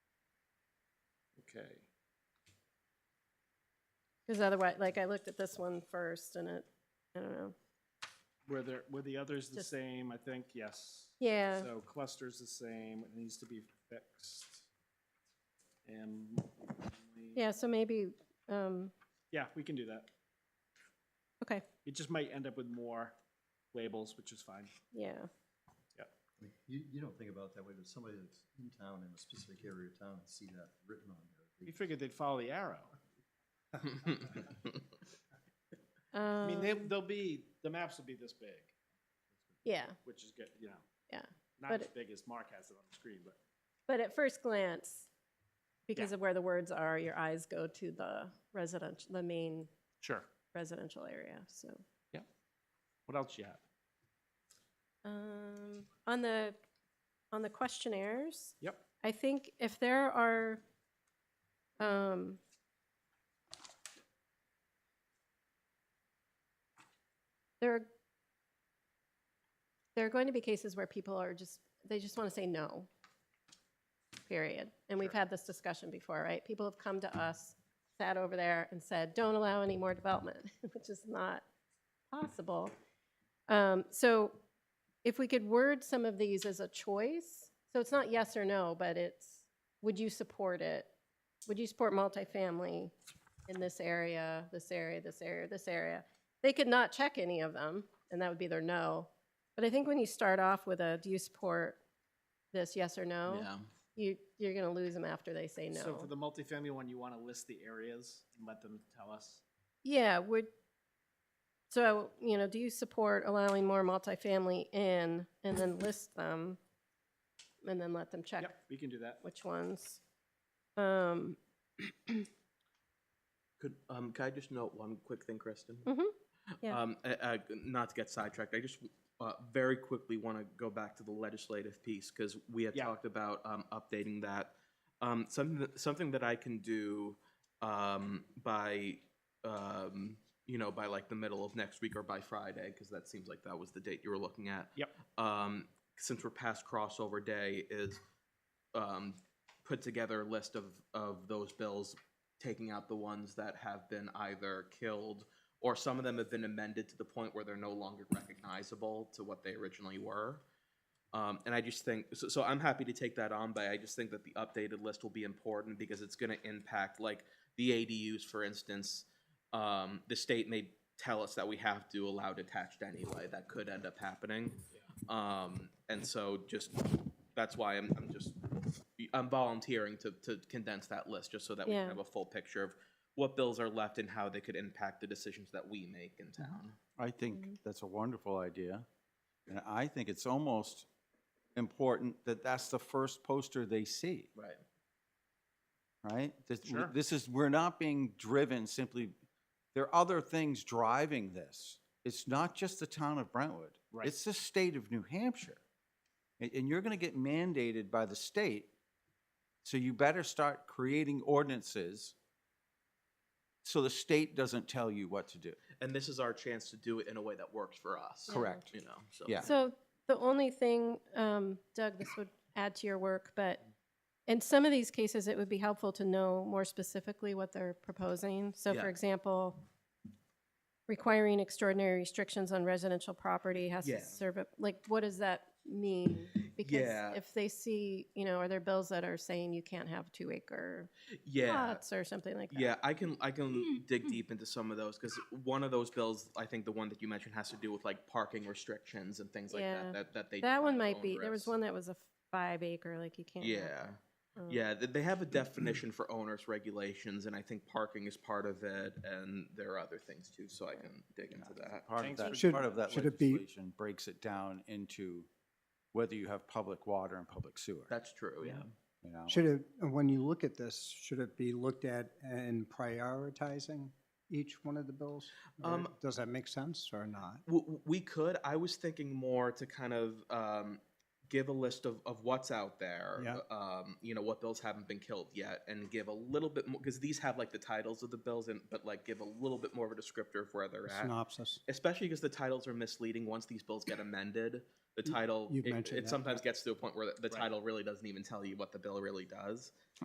Okay. Because otherwise, like, I looked at this one first and it, I don't know. Were there, were the others the Just- same? I think, yes. Yeah, So cluster's the same, it needs to be fixed. And. multifamily- yeah, so maybe, um, Yeah, we can do that. okay, It just might end up with more labels, which is fine. yeah. I mean, You, you don't think about it that way, but somebody that's in town, in a specific area of town, and see that written on there. We figured they'd follow the arrow. I mean, they, Um, they'll be, the maps will be this big, yeah, which is good, you know. Yeah, Not but as it- big as Mark has it on the screen, but but at first glance, because Yeah. of where the words are, your eyes go to the residential, the main sure. residential area, so. What else you have? Um, on the, on the questionnaires. Yep. I think if there are, um, there are, there are going to be cases where people are just, they just want to say no, period. And we've Sure. had this discussion before, right? People have come to us, sat over there and said, don't allow any more development, which is not possible. Um, So if we could word some of these as a choice, so it's not yes or no, but it's, would you support it? Would you support multifamily in this area, this area, this area, this area? They could not check any of them, and that would be their no. But I think when you start off with a, do you support this, yes or no? Yeah. You, you're gonna lose them after they say So for no. the multifamily one, you want to list the areas and let them tell us? Yeah, would, so, you know, do you support allowing more multifamily in, and then list them? And then let them check Yep, we can do that. which ones. Um, Could, um, could I just note one quick thing, Kristen? Mhm. Yeah. Um, uh, uh, not to get sidetracked, I just, uh, very quickly want to go back to the legislative piece, because we had Yeah. talked about, um, updating that. Um, something, that- something that I can do, um, by, um, you know, by like the middle of next week or by Friday, because that seems like that was the date you were looking at. Yep. Um, since we're past crossover day, is, um, put together a list of, of those bills, taking out the ones that have been either killed or some of them have been amended to the point where they're no longer recognizable to what they originally were. Um, and I just think, so, so I'm happy to take that on, but I just think that the updated list will be important because it's gonna impact, like, the ADUs, for instance. Um, the state may tell us that we have to allow detached anyway, that could end up happening. Um, and so just, that's why I'm, I'm just, I'm volunteering to, to condense that list, just so that we Yeah. can have a full picture of what bills are left and how they could impact the decisions that we make in town. I think Mhm. that's a wonderful idea. And I think it's almost important that that's the first poster they see, Right. right? This, w- Sure. this is, we're not being driven simply, there are other things driving this. It's not just the town of Brentwood. Right. It's the state of New Hampshire. And, and you're going to get mandated by the state. So you better start creating ordinances so the state doesn't tell you what to do. And this is our chance to do it in a way that works for us. Correct. You know, so. Yeah. So the only thing, um, Doug, this would add to your work, but in some of these cases, it would be helpful to know more specifically what they're proposing. So Yeah. for example, requiring extraordinary restrictions on residential property has Yeah. to serve, a- like, what does that mean? Yeah. Because if they see, you know, are there bills that are saying you can't have two acre Yeah. lots or something like that? Yeah, I can I Hmm, can dig deep into some of those because one of those bills, I think the one that you mentioned has to do with like parking restrictions and things like Yeah. that that that they That one find might be, there was onerous. one that was a five acre, like you can't. have Yeah. Um, Yeah, th- they have a definition for owners regulations, and I think parking is part of it, and there are other things too. So I can dig into that. Part of Thanks for- that, Should- part of that should it be- legislation breaks it down into whether you have public water and public sewer, That's true. Yeah. you know? Should it, when you look at this, should it be looked at in prioritizing each one of the bills? Or Um, Does that make sense or not? W- w- We could. I was thinking more to kind of um, give a list of, of what's out there. Yeah. Um, you know what bills haven't been killed yet, and give a little bit more because these have like the titles of the bills, and but like give a little bit more of a descriptor of where they're at. Synopsis. Especially because the titles are misleading. Once these bills get amended, the title you've it, mentioned it that, sometimes gets to a point where the, the Right. title really doesn't even tell you what the bill really does.